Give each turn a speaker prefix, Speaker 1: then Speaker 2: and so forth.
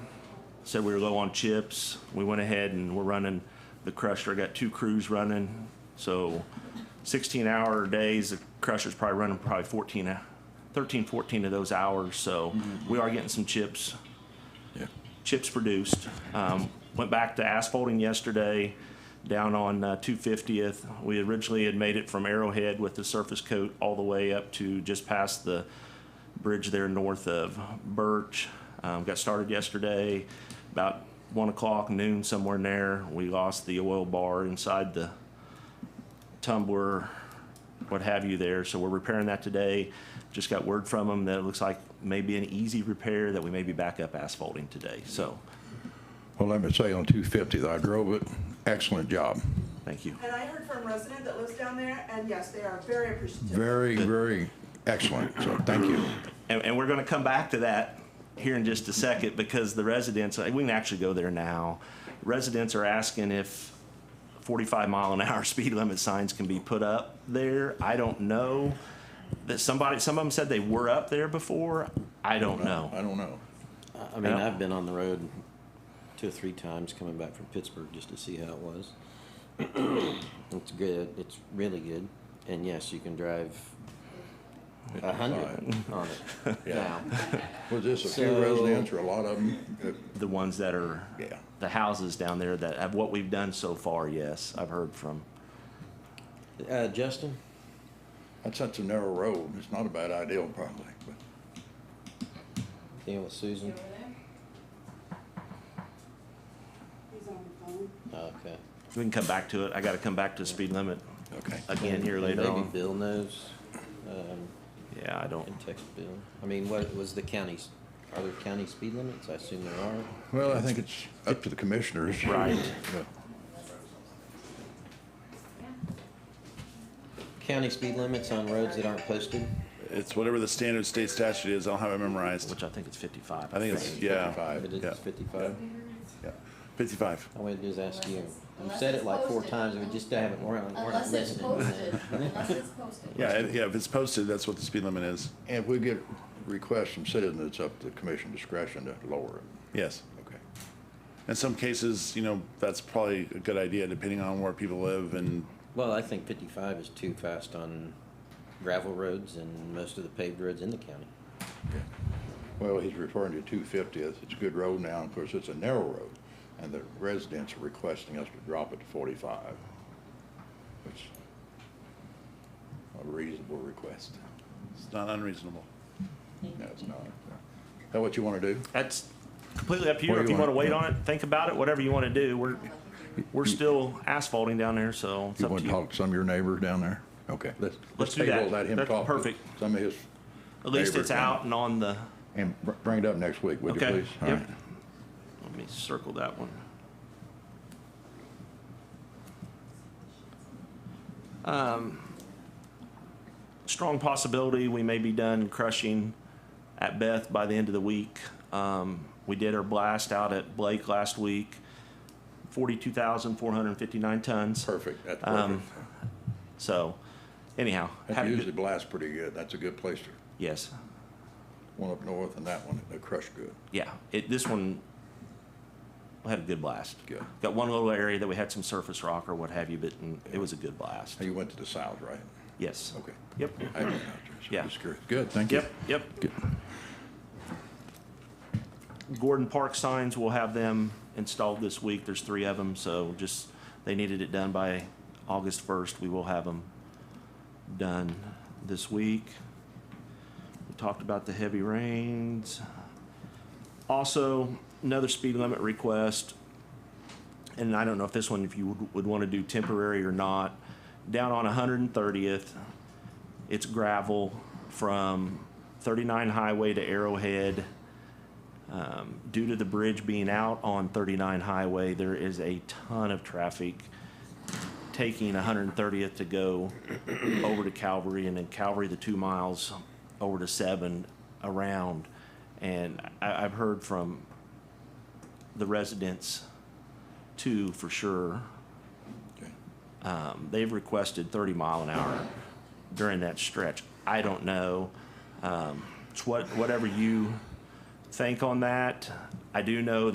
Speaker 1: said we were low on chips. We went ahead and we're running the crusher. I got two crews running, so 16 hour days. The crusher's probably running probably 14, hou- 13, 14 of those hours. So we are getting some chips
Speaker 2: Yeah.
Speaker 1: chips produced. Um, went back to asphalting yesterday down on uh, 250th. We originally had made it from Arrowhead with the surface coat all the way up to just past the bridge there north of Birch. Um, got started yesterday about one o'clock, noon, somewhere in there. We lost the oil bar inside the tumbler, what have you there. So we're repairing that today. Just got word from them that it looks like maybe an easy repair that we may be back up asphalting today. So,
Speaker 2: Well, let me say on 250th, I drove it. Excellent job.
Speaker 1: thank you.
Speaker 3: And I heard from a resident that lives down there, and yes, they are very appreciative.
Speaker 2: Very, very excellent. So thank you.
Speaker 1: And, and we're going to come back to that here in just a second because the residents, we can actually go there now. Residents are asking if 45 mile an hour speed limit signs can be put up there. I don't know. That somebody, some of them said they were up there before. I don't
Speaker 4: Oh.
Speaker 1: know.
Speaker 2: I don't know.
Speaker 4: I mean,
Speaker 1: Yeah.
Speaker 4: I've been on the road two or three times coming back from Pittsburgh just to see how it was. it's good. It's really good. And yes, you can drive a hundred on it
Speaker 2: Yeah.
Speaker 4: now.
Speaker 2: Was this a few
Speaker 4: So-
Speaker 2: residents or a lot of them?
Speaker 1: The ones that are
Speaker 2: Yeah.
Speaker 1: the houses down there that have what we've done so far, yes, I've heard from.
Speaker 4: Uh, Justin,
Speaker 2: That's such a narrow road. It's not a bad idea probably, but
Speaker 4: dealing with Susan.
Speaker 3: He's on the phone.
Speaker 4: Okay.
Speaker 1: We can come back to it. I gotta come back to speed limit
Speaker 2: okay.
Speaker 4: Uh,
Speaker 1: again here
Speaker 4: And
Speaker 1: later
Speaker 4: maybe
Speaker 1: on.
Speaker 4: Bill knows. Um,
Speaker 1: Yeah, I don't,
Speaker 4: and text Bill. I mean, what was the county's? Are there county speed limits? I assume there are.
Speaker 2: Well, I think it's up to the commissioners.
Speaker 1: Right.
Speaker 2: Yeah.
Speaker 4: County speed limits on roads that aren't posted.
Speaker 5: It's whatever the standard state statute is. I don't have it memorized.
Speaker 1: which I think it's fifty-five.
Speaker 5: I think it's, yeah,
Speaker 4: But it's
Speaker 5: Yeah.
Speaker 4: 55.
Speaker 5: yeah, 55.
Speaker 4: All we had to do is ask you. You
Speaker 6: Unless
Speaker 4: said it
Speaker 6: it's
Speaker 4: like four
Speaker 6: posted.
Speaker 4: times, we just haven't, we're not, we're not
Speaker 6: Unless it's
Speaker 4: listening.
Speaker 6: posted, unless it's posted.
Speaker 5: Yeah, it- yeah, if it's posted, that's what the speed limit is.
Speaker 2: And if we get requests from citizens, it's up to the commission discretion to lower it.
Speaker 5: Yes.
Speaker 2: Okay.
Speaker 5: In some cases, you know, that's probably a good idea depending on where people live and,
Speaker 4: Well, I think fifty-five is too fast on gravel roads and most of the paved roads in the county.
Speaker 2: Well, he's referring to 250th. It's a good road now. Of course, it's a narrow road, and the residents are requesting us to drop it to 45, which is a reasonable request.
Speaker 5: it's not unreasonable.
Speaker 2: No, it's not. Is that what you want to do?
Speaker 1: That's completely up to you.
Speaker 2: What do
Speaker 1: If
Speaker 2: you
Speaker 1: you wanna
Speaker 2: want?
Speaker 1: wait on it, think about it, whatever you wanna do. We're, we're still asphalting down there, so it's
Speaker 2: You
Speaker 1: up
Speaker 2: want
Speaker 1: to
Speaker 2: to
Speaker 1: you.
Speaker 2: talk to some of your neighbors down there? Okay, let's, let's
Speaker 1: do that.
Speaker 2: table, let him
Speaker 1: That's
Speaker 2: talk to
Speaker 1: perfect.
Speaker 2: some of his,
Speaker 1: At least it's
Speaker 2: Neighbor.
Speaker 1: out and on the,
Speaker 2: and br- bring it up next week, would you
Speaker 1: Okay,
Speaker 2: please? All
Speaker 1: yep.
Speaker 2: right.
Speaker 1: let me circle that one. Um, Strong possibility we may be done crushing at Beth by the end of the week. Um, we did our blast out at Blake last week, forty-two thousand, four hundred and fifty-nine tons.
Speaker 2: Perfect, that's
Speaker 1: Um,
Speaker 2: perfect.
Speaker 1: So, anyhow,
Speaker 2: That
Speaker 1: happy to-
Speaker 2: usually blasts pretty good. That's a good place to,
Speaker 1: yes,
Speaker 2: one up north and that one, they crush good.
Speaker 1: yeah. It, this one had a good blast.
Speaker 2: Good.
Speaker 1: Got one little area that we had some surface rock or what have you, but mm, it was a good blast.
Speaker 2: Now, You went to the south, right?
Speaker 1: Yes.
Speaker 2: Okay.
Speaker 1: Yep.
Speaker 2: I haven't been out there, so I'm
Speaker 1: Yeah.
Speaker 2: just curious. Good, thank you.
Speaker 1: Yep. Yep.
Speaker 2: Good.
Speaker 1: Gordon Park signs, we'll have them installed this week. There's three of them, so just, they needed it done by August 1st. We will have them done this week. We talked about the heavy rains. Also, another speed limit request, and I don't know if this one, if you would, would want to do temporary or not. Down on 130th, it's gravel from 39 Highway to Arrowhead. Um, due to the bridge being out on 39 Highway, there is a ton of traffic taking 130th to go over to Calvary and then Calvary the two miles over to seven around. And I, I've heard from the residents too, for sure.
Speaker 2: Okay.
Speaker 1: Um, they've requested 30 mile an hour during that stretch. I don't know. Um, it's what, whatever you think on that. I do know